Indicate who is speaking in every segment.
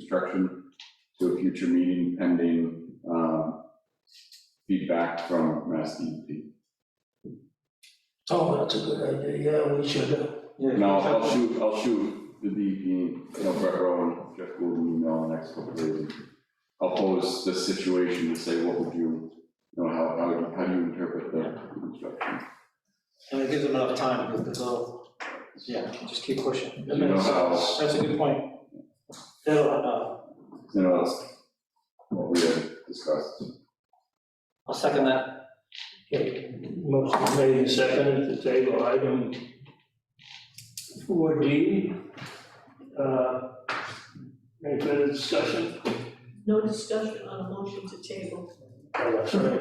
Speaker 1: construction to a future meeting pending um, feedback from Mass E DEP.
Speaker 2: Oh, that's a good idea, yeah, we should, uh,
Speaker 1: And I'll, I'll shoot, I'll shoot the DEP, you know, Brett Rowan, Jeff Gould, an email in the next couple of days. I'll pose the situation and say, what would you, you know, how, how, would- how do you interpret the construction?
Speaker 3: And it gives them enough time, because it's all, yeah, just keep pushing. That
Speaker 1: You know
Speaker 3: makes
Speaker 1: how-
Speaker 3: sense. That's a good point. That'll, uh,
Speaker 1: You know, that's what we had discussed.
Speaker 3: I'll second that.
Speaker 2: okay, motion made and seconded to table item four D. Uh, any further discussion?
Speaker 4: No discussion on a motion to table.
Speaker 2: Oh, that's right.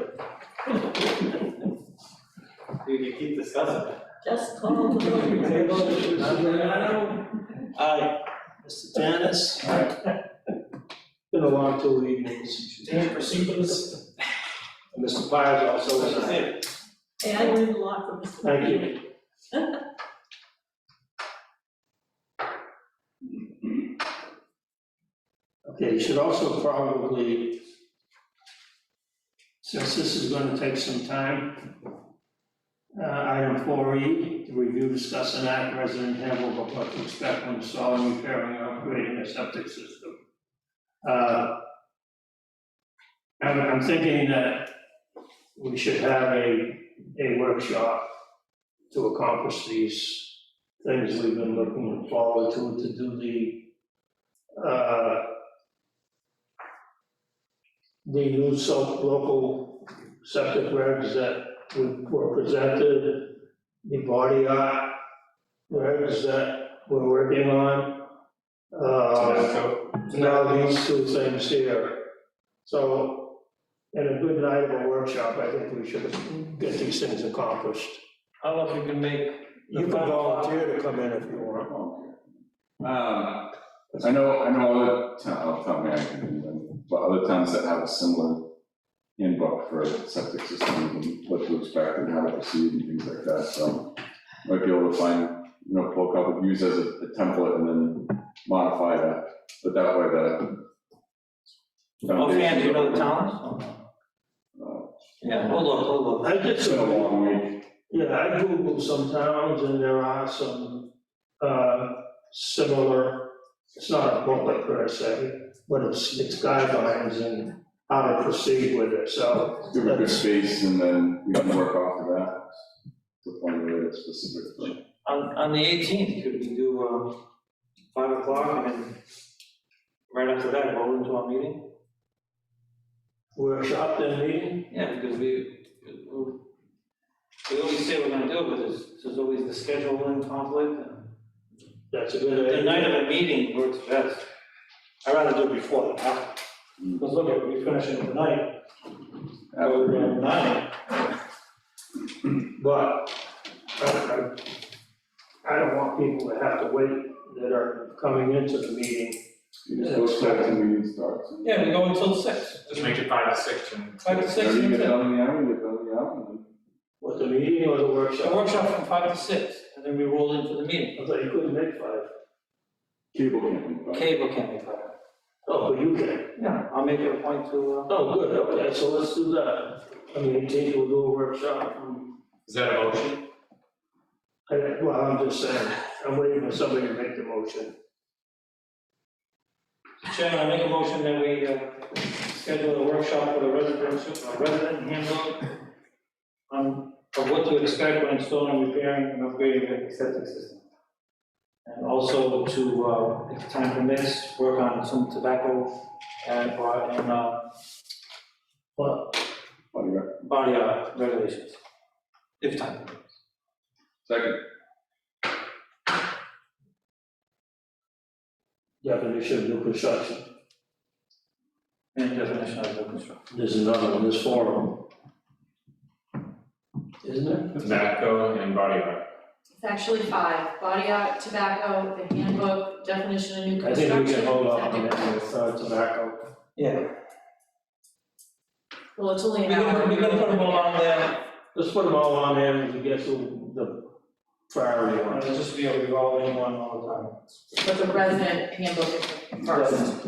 Speaker 3: You can keep discussing.
Speaker 4: Just call the
Speaker 2: Table,
Speaker 4: vote.
Speaker 2: Mr. Giordano,
Speaker 3: Aye.
Speaker 2: Mr. Dennis,
Speaker 1: All right,
Speaker 2: been a long two evenings.
Speaker 3: Dan, proceed with this.
Speaker 2: And Mr. Pires also was aye.
Speaker 4: Hey, I learned a lot from Mr.
Speaker 2: Thank you. Okay, you should also probably, since this is gonna take some time, uh, item four E, to review, discuss, and act resident handbook of what to expect when installing, repairing, or upgrading a septic system. Uh, I'm, I'm thinking that we should have a, a workshop to accomplish these things we've been looking forward to, to do the, uh, the new so- local septic regs that we- were presented, the body art regs that we're working on. Uh, now these two things here. So, in a good night of a workshop, I think we should get these things accomplished.
Speaker 3: I don't know if you can make.
Speaker 2: You can volunteer to come in if you want.
Speaker 1: Um, I know, I know other town, oh, town man, but other towns that have a similar handbook for septic systems and what to expect and how to proceed and things like that, so might be able to find, you know, pull a couple, use as a a template and then modify that, but that way the.
Speaker 3: Offhand, do oh, you know the
Speaker 1: foundation-
Speaker 3: towns? Yeah, hold on, hold on.
Speaker 2: I did
Speaker 1: It's been uh, a
Speaker 2: some,
Speaker 1: long week,
Speaker 2: yeah, I Googled some towns and there are some, uh, similar, it's not a booklet per se, but it's, it's guidelines and how to proceed with it, so.
Speaker 1: give a good space and then we can work off of that. To find a really specific thing.
Speaker 3: On, on the eighteenth, could we do, uh, five o'clock and then right after that, roll into our meeting?
Speaker 2: Workshop then meeting,
Speaker 3: Yeah, because we, we- we always say we're gonna do it, but there's, there's always the scheduling conflict and
Speaker 2: that's a
Speaker 3: The
Speaker 2: good
Speaker 3: the
Speaker 2: idea.
Speaker 3: night of a meeting works best. I'd rather do it before than after. Because look, if we finish it tonight,
Speaker 1: After we-
Speaker 3: around nine.
Speaker 2: But I, I, I don't want people to have to wait that are coming into the meeting.
Speaker 1: You just go start the meeting starts. and-
Speaker 3: Yeah, we go until six,
Speaker 5: Just make it five to six and.
Speaker 3: five to six.
Speaker 1: Or you
Speaker 3: and
Speaker 1: get
Speaker 3: that's it.
Speaker 1: done in the hour, you get done in the hour, and then-
Speaker 2: What, the meeting or the
Speaker 3: A
Speaker 2: workshop?
Speaker 3: workshop from five to six, and then we roll into the meeting.
Speaker 2: I thought you couldn't make five.
Speaker 1: cable can't be cut.
Speaker 3: Cable can be cut.
Speaker 2: Oh, but you can.
Speaker 3: Yeah, I'll make it a point to, uh,
Speaker 2: Oh, good, okay, so let's do that. I mean, take, we'll do a workshop from,
Speaker 5: Is that a motion?
Speaker 2: I, well, I'm just saying, I'm waiting for somebody to make the motion.
Speaker 3: uh, Chairman, I make a motion that we, uh, schedule a workshop for the resident, su- uh, resident handbook on, of what to expect when installing, repairing, and upgrading a septic system. And also to, uh, if time permits, work on some tobacco and, and, uh,
Speaker 1: What do you got?
Speaker 3: body art regulations. If time permits.
Speaker 1: Second,
Speaker 2: Definition of new construction.
Speaker 3: And definition of the construction.
Speaker 2: There's another one, this forum. Isn't there?
Speaker 5: Tobacco and body art.
Speaker 4: It's actually five, body art, tobacco, the handbook, definition of new
Speaker 2: I
Speaker 4: construction.
Speaker 2: think we can hold off on that with uh, tobacco.
Speaker 3: Yeah.
Speaker 4: Well, it's
Speaker 3: We're
Speaker 4: only an hour.
Speaker 3: gonna, we're gonna put them all on there,
Speaker 2: Let's put them all on there and we get to the priority
Speaker 3: and
Speaker 2: one.
Speaker 3: it'll just be a revolving one all the time.
Speaker 4: But the resident handbook is first.